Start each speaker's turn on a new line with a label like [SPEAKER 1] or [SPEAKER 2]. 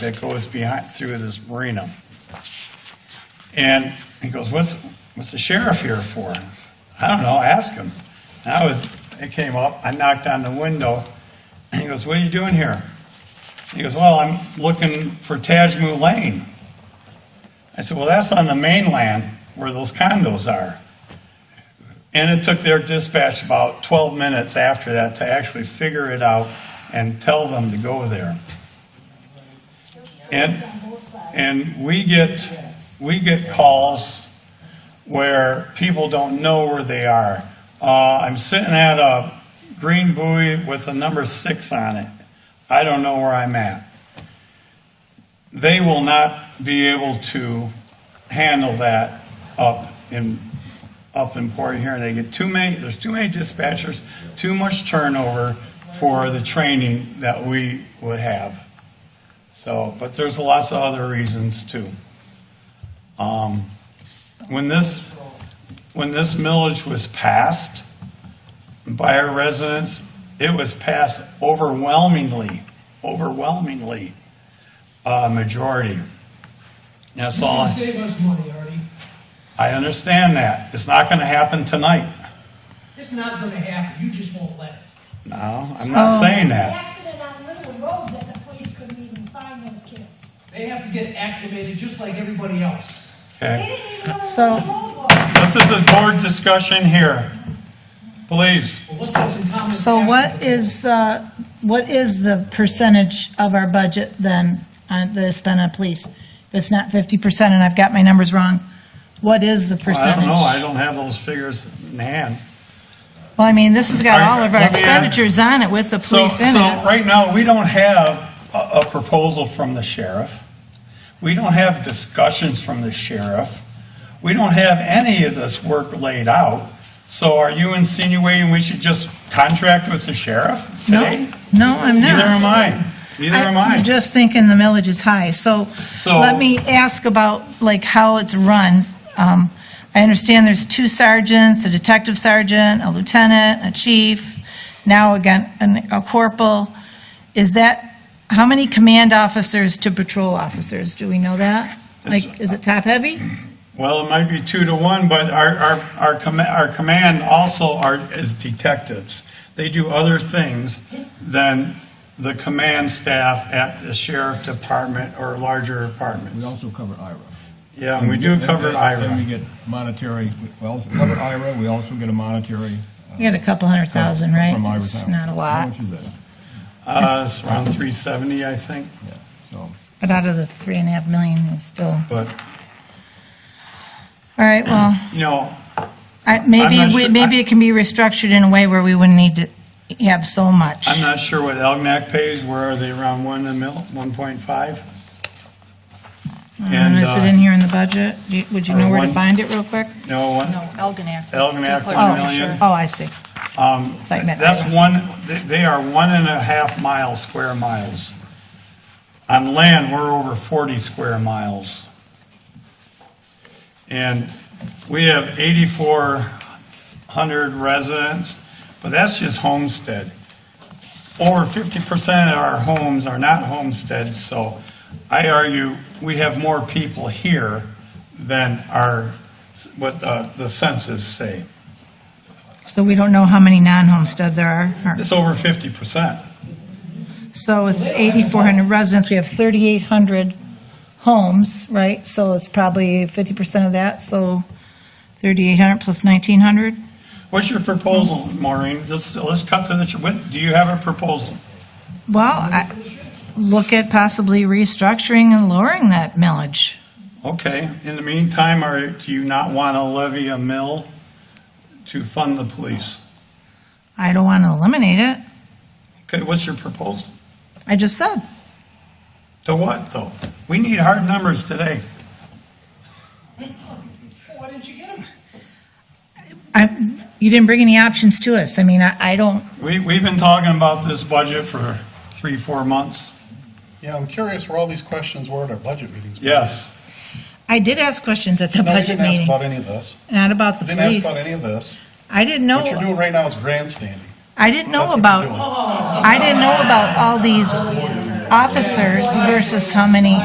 [SPEAKER 1] that goes behind, through this marina. And he goes, what's, what's the sheriff here for? I said, I don't know, ask him. And I was, it came up, I knocked on the window, and he goes, what are you doing here? He goes, well, I'm looking for Tajmu Lane. I said, well, that's on the mainland where those condos are. And it took their dispatch about 12 minutes after that to actually figure it out and tell them to go there. And, and we get, we get calls where people don't know where they are. Uh, I'm sitting at a green buoy with a number six on it. I don't know where I'm at. They will not be able to handle that up in up in Port Huron. They get too many, there's too many dispatchers, too much turnover for the training that we would have. So, but there's lots of other reasons too. Um, When this, when this millage was passed by our residents, it was passed overwhelmingly, overwhelmingly, uh, majority. That's all. I-
[SPEAKER 2] Save us money, Artie.
[SPEAKER 1] I understand that. It's not going to happen tonight.
[SPEAKER 2] It's not gonna happen, you just won't let it.
[SPEAKER 1] No, I'm not
[SPEAKER 3] So-
[SPEAKER 1] saying
[SPEAKER 4] The
[SPEAKER 1] that.
[SPEAKER 4] accident on Little Road that the police couldn't even find those kids.
[SPEAKER 2] They have to get activated just like everybody else.
[SPEAKER 4] They
[SPEAKER 1] Okay.
[SPEAKER 4] didn't even know
[SPEAKER 3] So-
[SPEAKER 4] where Little Road was.
[SPEAKER 1] This is a board discussion here. Please.
[SPEAKER 2] Well, let's have some common
[SPEAKER 3] So what
[SPEAKER 2] sense.
[SPEAKER 3] is, uh, what is the percentage of our budget then uh, that is spent on police? If it's not 50% and I've got my numbers wrong, what is the
[SPEAKER 1] I
[SPEAKER 3] percentage?
[SPEAKER 1] don't know. I don't have those figures in hand.
[SPEAKER 3] Well, I mean, this has
[SPEAKER 1] All
[SPEAKER 3] got
[SPEAKER 1] right,
[SPEAKER 3] all of our
[SPEAKER 1] let me, uh,
[SPEAKER 3] expenditures on it with the
[SPEAKER 1] So,
[SPEAKER 3] police in
[SPEAKER 1] so
[SPEAKER 3] it.
[SPEAKER 1] right now, we don't have a, a proposal from the sheriff. We don't have discussions from the sheriff. We don't have any of this work laid out. So are you insinuating we should just contract with the sheriff today?
[SPEAKER 3] No, I'm not.
[SPEAKER 1] Neither am I. Neither am I.
[SPEAKER 3] I'm just thinking the millage is high, so
[SPEAKER 1] So-
[SPEAKER 3] let me ask about, like, how it's run. Um, I understand there's two sergeants, a detective sergeant, a lieutenant, a chief, now again, an- a corporal. Is that, how many command officers to patrol officers? Do we know that? Like, is it top-heavy?
[SPEAKER 1] Well, it might be two to one, but our, our, our command, our command also are, is detectives. They do other things than the command staff at the sheriff department or larger
[SPEAKER 5] We
[SPEAKER 1] departments.
[SPEAKER 5] also cover IRA.
[SPEAKER 1] Yeah, and we do cover
[SPEAKER 5] Then we
[SPEAKER 1] IRA.
[SPEAKER 5] get monetary, we also cover IRA, we also get a monetary. uh,
[SPEAKER 3] You got a couple hundred thousand, right?
[SPEAKER 5] From IRA.
[SPEAKER 3] It's not a
[SPEAKER 5] How
[SPEAKER 3] lot,
[SPEAKER 5] much is that?
[SPEAKER 1] Uh, it's around three seventy, I think,
[SPEAKER 5] Yeah, so,
[SPEAKER 3] but out of the three and a half million, it's still,
[SPEAKER 1] but,
[SPEAKER 3] all right, well.
[SPEAKER 1] you know,
[SPEAKER 3] I-
[SPEAKER 1] I'm
[SPEAKER 3] Maybe,
[SPEAKER 1] not
[SPEAKER 3] we-
[SPEAKER 1] sure-
[SPEAKER 3] maybe it can be restructured in a way where we wouldn't need to have so much.
[SPEAKER 1] I'm not sure what Elginak pays. Where are they? Around one a mil, one point five?
[SPEAKER 3] Um,
[SPEAKER 1] And,
[SPEAKER 3] Is it
[SPEAKER 1] uh,
[SPEAKER 3] in here in the budget? Do you- Would you know
[SPEAKER 1] or
[SPEAKER 3] where to
[SPEAKER 1] one-
[SPEAKER 3] find it real quick?
[SPEAKER 1] no, one,
[SPEAKER 6] No, Elginak.
[SPEAKER 1] Elginak,
[SPEAKER 6] Separate
[SPEAKER 1] one
[SPEAKER 3] Oh,
[SPEAKER 6] measure.
[SPEAKER 1] million.
[SPEAKER 3] Oh, I see.
[SPEAKER 1] Um,
[SPEAKER 3] Thought you meant
[SPEAKER 1] That's
[SPEAKER 3] Iowa.
[SPEAKER 1] one, they- they are one and a half mile, square miles. On land, we're over 40 square miles. And we have 8,400 residents, but that's just homestead. Over 50% of our homes are not homestead, so I argue we have more people here than our, what uh, the census say.
[SPEAKER 3] So we don't know how many non-homestead there are. or-
[SPEAKER 1] It's over 50%.
[SPEAKER 3] So with 8,400 residents, we have 3,800 homes, right? So it's probably 50% of that, so 3,800 plus 1,900?
[SPEAKER 1] What's your proposal, Maureen? Let's, let's cut to the, ch- what, do you have a proposal?
[SPEAKER 3] Well, I- look at possibly restructuring and lowering that millage.
[SPEAKER 1] Okay, in the meantime, are, do you not want to levy a mill to fund the police?
[SPEAKER 3] I don't want to eliminate it.
[SPEAKER 1] Okay, what's your proposal?
[SPEAKER 3] I just said.
[SPEAKER 1] To what, though? We need hard numbers today.
[SPEAKER 2] Why didn't you get him?
[SPEAKER 3] I, you didn't bring any options to us. I mean, I, I don't,
[SPEAKER 1] We, we've been talking about this budget for three, four months.
[SPEAKER 7] Yeah, I'm curious where all these questions were at our budget meetings.
[SPEAKER 1] Yes,
[SPEAKER 3] I did ask questions at the
[SPEAKER 7] No, you
[SPEAKER 3] budget
[SPEAKER 7] didn't ask
[SPEAKER 3] meeting,
[SPEAKER 7] about any of this.
[SPEAKER 3] not about the
[SPEAKER 7] You didn't ask about
[SPEAKER 3] police.
[SPEAKER 7] any of this.
[SPEAKER 3] I didn't
[SPEAKER 7] What you're
[SPEAKER 3] know,
[SPEAKER 7] doing right now is grandstanding.
[SPEAKER 3] I didn't know
[SPEAKER 7] That's what you're
[SPEAKER 3] about,
[SPEAKER 7] doing.
[SPEAKER 3] I didn't know about all these officers versus how many